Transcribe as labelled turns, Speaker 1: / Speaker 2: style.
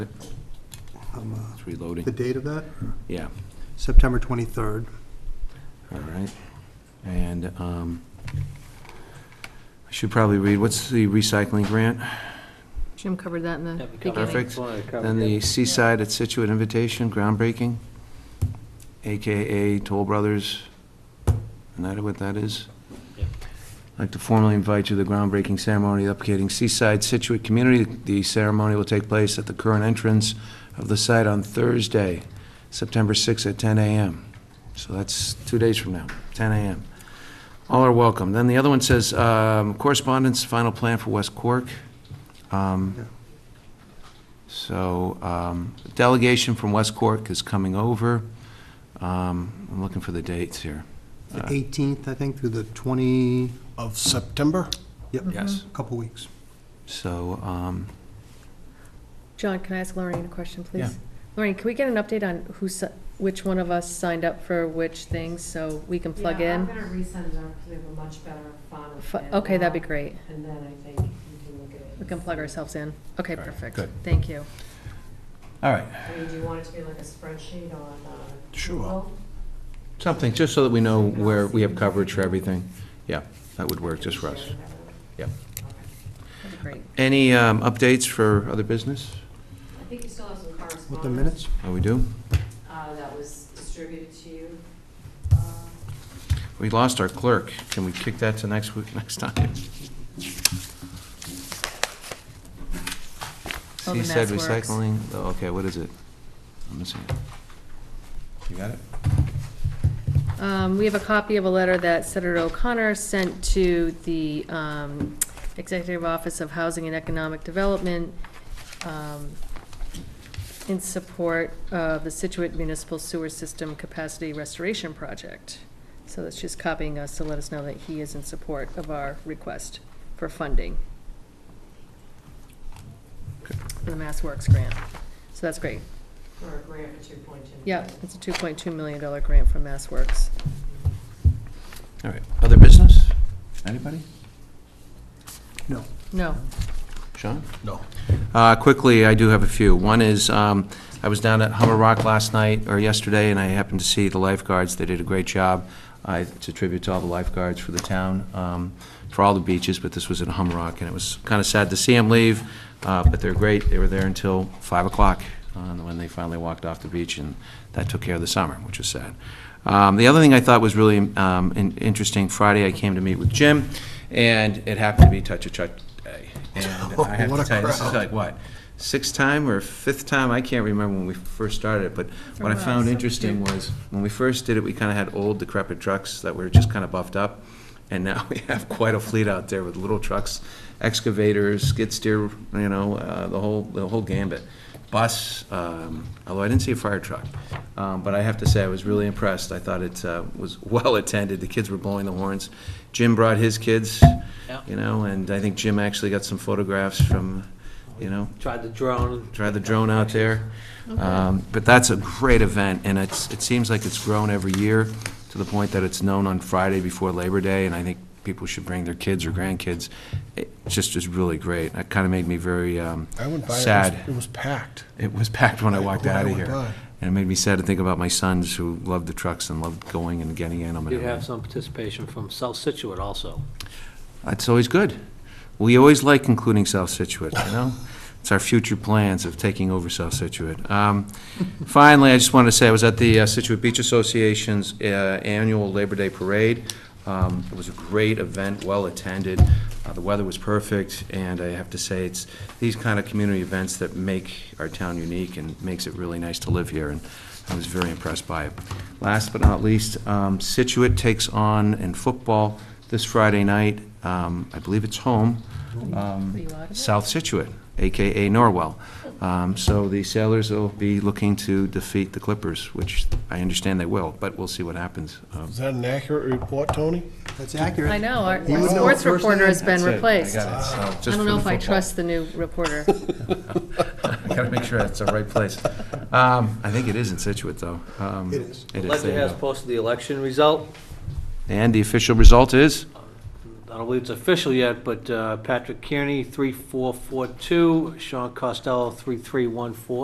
Speaker 1: Um, uh,
Speaker 2: It's
Speaker 1: The
Speaker 2: reloading.
Speaker 1: date of that?
Speaker 2: Yeah,
Speaker 1: September 23rd.
Speaker 2: all right. And um, I should probably read, what's the recycling grant?
Speaker 3: Jim covered that in the beginning.
Speaker 2: Perfect. Then the Seaside at Situate invitation, groundbreaking, AKA Toll Brothers. Isn't that what that is?
Speaker 4: Yep.
Speaker 2: I'd like to formally invite you to the groundbreaking ceremony locating Seaside Situate Community. The ceremony will take place at the current entrance of the site on Thursday, September 6th at 10 a.m. So that's two days from now, 10 a.m. All are welcome. Then the other one says, um, correspondence, final plan for West Cork. Um,
Speaker 1: Yeah.
Speaker 2: So um, delegation from West Cork is coming over. Um, I'm looking for the dates here.
Speaker 1: The
Speaker 2: Uh,
Speaker 1: 18th, I think, through the 20,
Speaker 5: Of September?
Speaker 1: yep,
Speaker 2: Yes.
Speaker 1: couple weeks.
Speaker 2: So, um,
Speaker 3: John, can I ask Lorraine a question, please?
Speaker 2: Yeah.
Speaker 3: Lorraine, can we get an update on who, si- which one of us signed up for which things, so we can plug
Speaker 6: Yeah,
Speaker 3: in?
Speaker 6: I'm gonna resend them, because we have a much better font.
Speaker 3: Fu-
Speaker 6: and,
Speaker 3: Okay, that'd be
Speaker 6: uh,
Speaker 3: great.
Speaker 6: And then I think you can look at it.
Speaker 3: We can plug ourselves in. Okay, perfect.
Speaker 2: good.
Speaker 3: Thank you.
Speaker 2: all right,
Speaker 6: I mean, do you want it to be like a spreadsheet on, uh?
Speaker 5: Sure.
Speaker 6: Google?
Speaker 2: something, just so that we know where we have coverage for everything. Yeah, that would work just for us.
Speaker 6: Share with everyone.
Speaker 2: Yep.
Speaker 6: Okay.
Speaker 3: That'd be great.
Speaker 2: Any um, updates for other business?
Speaker 6: I think you still have some correspondence.
Speaker 1: With the minutes?
Speaker 2: Oh, we do?
Speaker 6: Uh, that was distributed to you. Uh,
Speaker 2: We lost our clerk. Can we kick that to next week, next time?
Speaker 3: Oh, the
Speaker 2: He said
Speaker 3: mass works.
Speaker 2: recycling, oh, okay, what is it? I'm missing it. You got it?
Speaker 3: Um, We have a copy of a letter that Senator O'Connor sent to the um, Executive Office of Housing and Economic Development um, in support of the Situate Municipal Sewer System Capacity Restoration Project. So that's just copying us to let us know that he is in support of our request for funding for the Mass Works grant. So that's great.
Speaker 6: For a grant for two point two.
Speaker 3: Yeah, it's a $2.2 million grant from Mass Works.
Speaker 2: All right, other business? Anybody?
Speaker 1: No.
Speaker 3: No.
Speaker 2: Sean?
Speaker 5: No.
Speaker 2: Uh, Quickly, I do have a few. One is, um, I was down at Hummer Rock last night, or yesterday, and I happened to see the lifeguards. They did a great job. I- It's a tribute to all the lifeguards for the town, um, for all the beaches, but this was at Hummer Rock, and it was kind of sad to see them leave, uh, but they're great. They were there until 5 o'clock uh, when they finally walked off the beach, and that took care of the summer, which was sad. Um, The other thing I thought was really um, in- interesting, Friday, I came to meet with Jim, and it happened to be Touch a Truck Day. And I have
Speaker 5: Oh, What
Speaker 2: to
Speaker 5: a
Speaker 2: tell you, this is
Speaker 5: crowd.
Speaker 2: like, what, sixth time or fifth time? I can't remember when we first started it, but what I
Speaker 3: Wow,
Speaker 2: found
Speaker 3: so
Speaker 2: interesting
Speaker 3: cute.
Speaker 2: was, when we first did it, we kind of had old decrepit trucks that were just kind of buffed up, and now we have quite a fleet out there with little trucks, excavators, skid steer, you know, uh, the whole, the whole gambit. Bus, um, although I didn't see a fire truck. Um, But I have to say, I was really impressed. I thought it uh, was well-attended. The kids were blowing the horns. Jim brought his kids,
Speaker 4: Yeah.
Speaker 2: you know, and I think Jim actually got some photographs from, you know,
Speaker 4: Tried the drone.
Speaker 2: try the drone out there. Um, But that's a great event, and it's, it seems like it's grown every year to the point that it's known on Friday before Labor Day, and I think people should bring their kids or grandkids. It just is really great. That kind of made me very um,
Speaker 5: I went by. it was- It
Speaker 2: sad.
Speaker 5: was packed.
Speaker 2: It was packed when I walked
Speaker 5: When I
Speaker 2: out of
Speaker 5: went
Speaker 2: here.
Speaker 5: by.
Speaker 2: And it made me sad to think about my sons who loved the trucks and loved going and getting in them. and
Speaker 4: Did have
Speaker 2: everything.
Speaker 4: some participation from South Situate also.
Speaker 2: That's always good. We always like including South Situate, you know? It's our future plans of taking over South Situate. Um, Finally, I just wanted to say, I was at the uh, Situate Beach Association's uh, annual Labor Day Parade. Um, It was a great event, well-attended. Uh, The weather was perfect, and I have to say, it's these kind of community events that make our town unique and makes it really nice to live here, and I was very impressed by it. Last but not least, um, Situate takes on in football this Friday night, um, I believe it's home, um,
Speaker 3: Are you out of it?
Speaker 2: South Situate, AKA Norwell. Um, So the Sailors will be looking to defeat the Clippers, which I understand they will, but we'll see what happens. Um,
Speaker 5: Is that an accurate report, Tony?
Speaker 1: That's accurate.
Speaker 3: I know, our
Speaker 1: You would know
Speaker 3: sports
Speaker 1: it first
Speaker 3: reporter has
Speaker 1: hand.
Speaker 3: been
Speaker 2: that's it. I
Speaker 3: replaced.
Speaker 2: got it. So just
Speaker 3: I don't
Speaker 2: for
Speaker 3: know
Speaker 2: the
Speaker 3: if I
Speaker 2: football.
Speaker 3: trust the new reporter.
Speaker 2: I gotta make sure it's the right place. Um, I think it is in Situate, though. Um,
Speaker 1: It is.
Speaker 2: It is,
Speaker 4: Ledger
Speaker 2: there you
Speaker 4: has
Speaker 2: go.
Speaker 4: posted the election result.
Speaker 2: And the official result is?
Speaker 4: The I don't believe it's official yet, but uh, Patrick Kearney, 3442, Sean Costello, 3314,